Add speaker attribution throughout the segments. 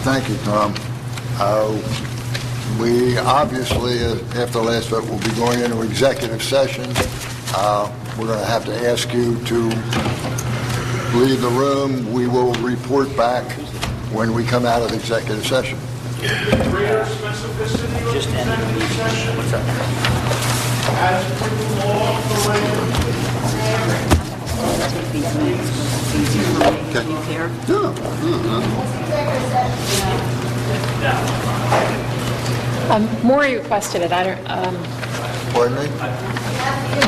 Speaker 1: Thank you, Tom. Uh, We obviously, uh, after the last vote, will be going into executive session. Uh, We're going to have to ask you to leave the room. We will report back when we come out of executive session.
Speaker 2: greater specificity of executive session as per the law of the land.
Speaker 3: These minutes were easier for me. Do you care?
Speaker 4: Um, Maury requested it, I don't, um,
Speaker 1: Pardon me?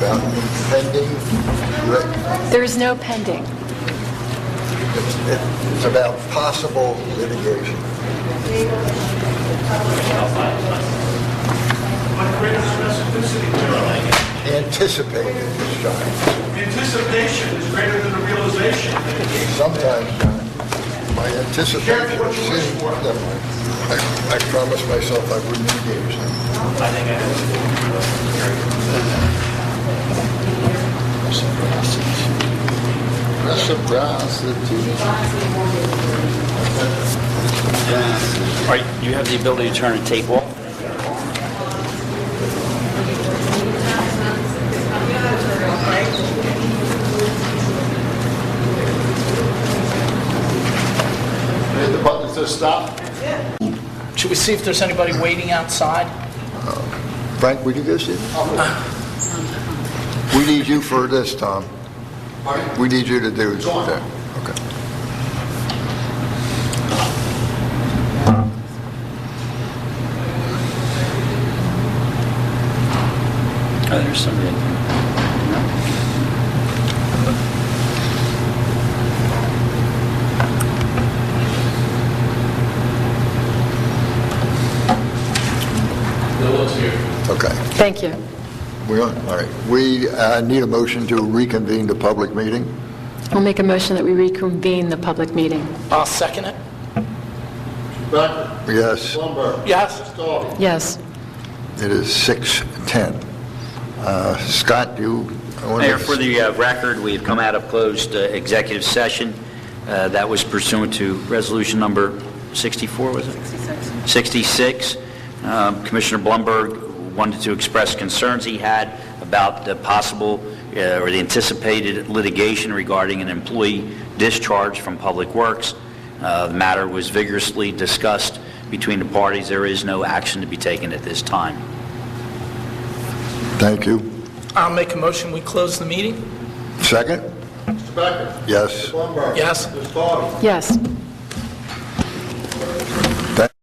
Speaker 1: About pending, re-
Speaker 4: there is no pending.
Speaker 1: it's it's about possible litigation.
Speaker 2: What greater specificity there?
Speaker 1: Anticipated this time.
Speaker 2: Anticipation is greater than the realization.
Speaker 1: Sometimes, John, my anticipation
Speaker 2: Careful what you wish
Speaker 1: seems
Speaker 2: for.
Speaker 1: that way. I I promised myself I wouldn't engage them. Reciprocity.
Speaker 5: All right, you have the ability to turn a tape off.
Speaker 1: The button says stop.
Speaker 6: Should we see if there's anybody waiting outside?
Speaker 1: Frank, would you go sit? We need you for this, Tom. We need you to do that. Okay.
Speaker 5: Oh, there's somebody in there.
Speaker 1: Okay.
Speaker 4: Thank you.
Speaker 1: We are, all right. We uh, need a motion to reconvene the public meeting.
Speaker 4: I'll make a motion that we reconvene the public meeting.
Speaker 6: I'll second it.
Speaker 1: Yes,
Speaker 6: Yes?
Speaker 4: Yes.
Speaker 1: it is 6:10. Uh, Scott, you want to...
Speaker 5: Mayor, for the uh, record, we have come out of closed uh, executive session. Uh, That was pursuant to resolution number 64, was it? 66. Um, Commissioner Blumberg wanted to express concerns he had about the possible uh, or the anticipated litigation regarding an employee discharge from Public Works. Uh, The matter was vigorously discussed between the parties. There is no action to be taken at this time.
Speaker 1: Thank you.
Speaker 6: I'll make a motion, we close the meeting.
Speaker 1: Second? Yes.
Speaker 6: Yes?
Speaker 4: Yes.